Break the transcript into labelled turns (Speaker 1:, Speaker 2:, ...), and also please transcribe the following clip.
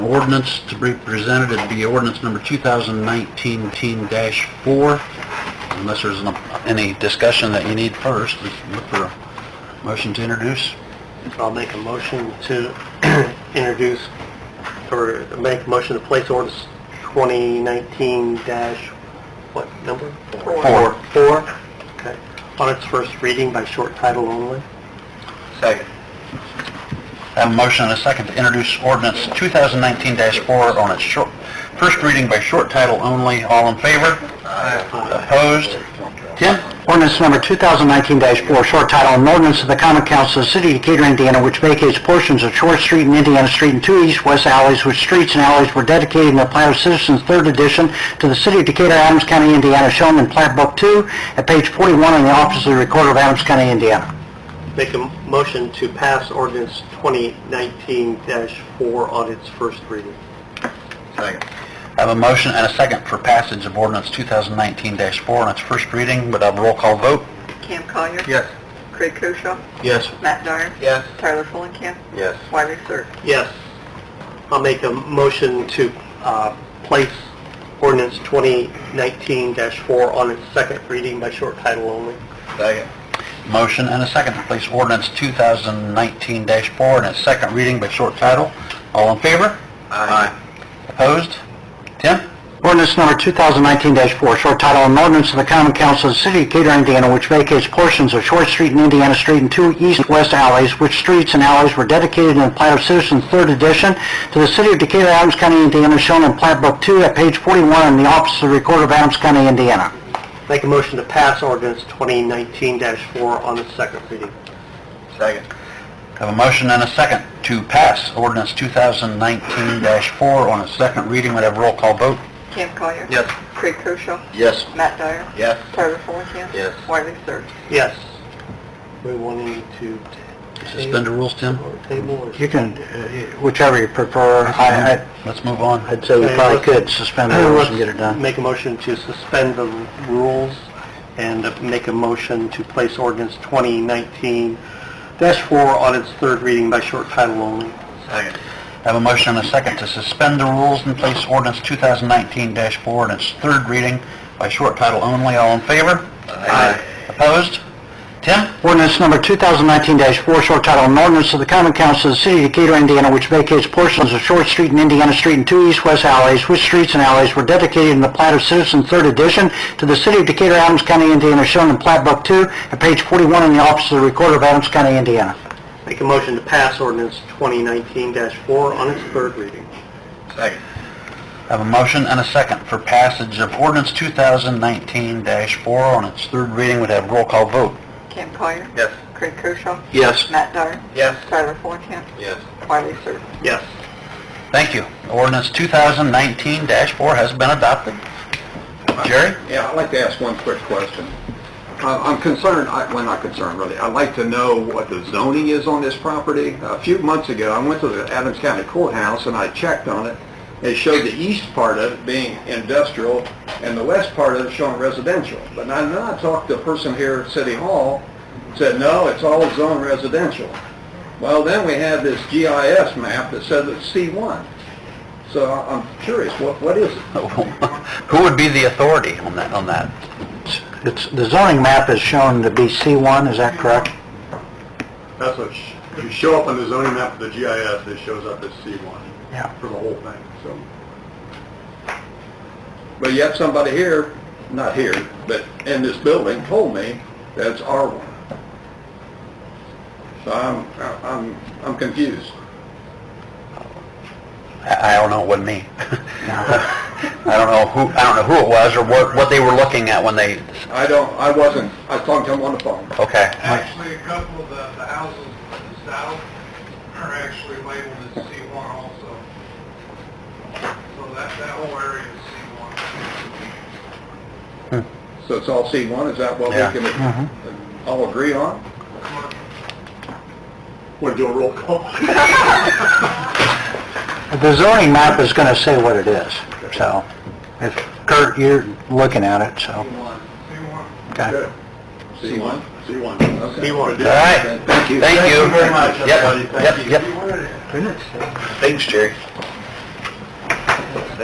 Speaker 1: ordinance to be presented, it'd be ordinance number 2019-4. Unless there's an- any discussion that you need first, we can look for a motion to introduce.
Speaker 2: I'll make a motion to introduce, or make a motion to place ordinance 2019 dash, what number?
Speaker 1: Four.
Speaker 2: Four, okay, on its first reading by short title only.
Speaker 1: Second. Have a motion and a second to introduce ordinance 2019-4 on its short, first reading by short title only. All in favor? Opposed? Tim?
Speaker 3: Ordinance number 2019-4, short title, an ordinance of the common council of the city of Decatur, Indiana, which vacates portions of Short Street and Indiana Street and two east-west alleys, which streets and alleys were dedicated in the Plat of Citizens Third Edition to the city of Decatur, Adams County, Indiana, shown in Plat Book 2 at page 41 in the office of the recorder of Adams County, Indiana.
Speaker 2: Make a motion to pass ordinance 2019 dash four on its first reading.
Speaker 1: Second. I have a motion and a second for passage of ordinance 2019-4 on its first reading. Would have a roll call vote?
Speaker 4: Cam Collier.
Speaker 1: Yes.
Speaker 4: Craig Koshaw.
Speaker 1: Yes.
Speaker 4: Matt Dyer.
Speaker 1: Yes.
Speaker 4: Tyler Fulenkamp.
Speaker 1: Yes.
Speaker 4: Wiley Sir.
Speaker 2: Yes. I'll make a motion to uh, place ordinance 2019-4 on its second reading by short title only.
Speaker 1: Second. Motion and a second to place ordinance 2019-4 on its second reading by short title. All in favor? Aye. Opposed? Tim?
Speaker 3: Ordinance number 2019-4, short title, an ordinance of the common council of the city of Decatur, Indiana, which vacates portions of Short Street and Indiana Street and two east-west alleys, which streets and alleys were dedicated in the Plat of Citizens Third Edition to the city of Decatur, Adams County, Indiana, shown in Plat Book 2 at page 41 in the office of the recorder of Adams County, Indiana.
Speaker 2: Make a motion to pass ordinance 2019-4 on its second reading.
Speaker 1: Second. Have a motion and a second to pass ordinance 2019-4 on its second reading. Would have a roll call vote?
Speaker 4: Cam Collier.
Speaker 1: Yes.
Speaker 4: Craig Koshaw.
Speaker 1: Yes.
Speaker 4: Matt Dyer.
Speaker 1: Yes.
Speaker 4: Tyler Fulenkamp.
Speaker 1: Yes.
Speaker 4: Wiley Sir.
Speaker 2: Yes. We wanting to...
Speaker 1: Suspend the rules, Tim?
Speaker 2: Or Table or...
Speaker 3: You can, uh, whichever you prefer, I, I-
Speaker 1: Let's move on.
Speaker 3: I'd say we probably could suspend the rules and get it done.
Speaker 2: Make a motion to suspend the rules and uh, make a motion to place ordinance 2019-4 on its third reading by short title only.
Speaker 1: Second. Have a motion and a second to suspend the rules and place ordinance 2019-4 on its third reading by short title only. All in favor? Aye. Opposed? Tim?
Speaker 3: Ordinance number 2019-4, short title, an ordinance of the common council of the city of Decatur, Indiana, which vacates portions of Short Street and Indiana Street and two east-west alleys, which streets and alleys were dedicated in the plat of Citizen Third Edition to the city of Decatur, Adams County, Indiana, shown in Plat Book 2 at page 41 in the office of the recorder of Adams County, Indiana.
Speaker 2: Make a motion to pass ordinance 2019-4 on its third reading.
Speaker 1: Second. Have a motion and a second for passage of ordinance 2019-4 on its third reading. Would have roll call vote.
Speaker 4: Cam Collier.
Speaker 1: Yes.
Speaker 4: Craig Koshaw.
Speaker 1: Yes.
Speaker 4: Matt Dyer.
Speaker 1: Yes.
Speaker 4: Tyler Fulenkamp.
Speaker 1: Yes.
Speaker 4: Wiley Sir.
Speaker 2: Yes.
Speaker 1: Thank you. Ordinance 2019-4 has been adopted. Jerry?
Speaker 5: Yeah, I'd like to ask one quick question. Uh, I'm concerned, I- well, not concerned really, I'd like to know what the zoning is on this property. A few months ago, I went to the Adams County Courthouse and I checked on it. It showed the east part of it being industrial and the west part of it showing residential. But now, then I talked to a person here at City Hall, said, no, it's all zoned residential. Well, then we had this GIS map that said it's C1. So I- I'm curious, what, what is it?
Speaker 1: Who would be the authority on that, on that?
Speaker 3: It's, the zoning map is shown to be C1, is that correct?
Speaker 5: That's what, sh- if you show up on the zoning map for the GIS, it shows up as C1
Speaker 3: Yeah.
Speaker 5: for the whole thing, so. But yet somebody here, not here, but in this building told me that it's R1. So I'm, I'm, I'm confused.
Speaker 1: I I don't know, it wasn't me. I don't know who, I don't know who it was or what, what they were looking at when they,
Speaker 5: I don't, I wasn't, I was talking to him on the phone.
Speaker 1: okay.
Speaker 6: Actually, a couple of the, the houses to the south are actually labeled as C1 also. So that, that whole area is C1.
Speaker 5: So it's all C1, is that what we
Speaker 1: Yeah.
Speaker 5: can uh, all agree on? Want to do a roll call?
Speaker 3: The zoning map is going to say what it is, so, if, Kurt, you're looking at it, so,
Speaker 6: C1.
Speaker 3: okay.
Speaker 5: Good. C1? C1. Okay.
Speaker 2: C1. All
Speaker 1: right.
Speaker 5: Thank you.
Speaker 1: Thank you. Yep, Yep, yep.
Speaker 3: Goodness.
Speaker 1: Thanks, Jerry.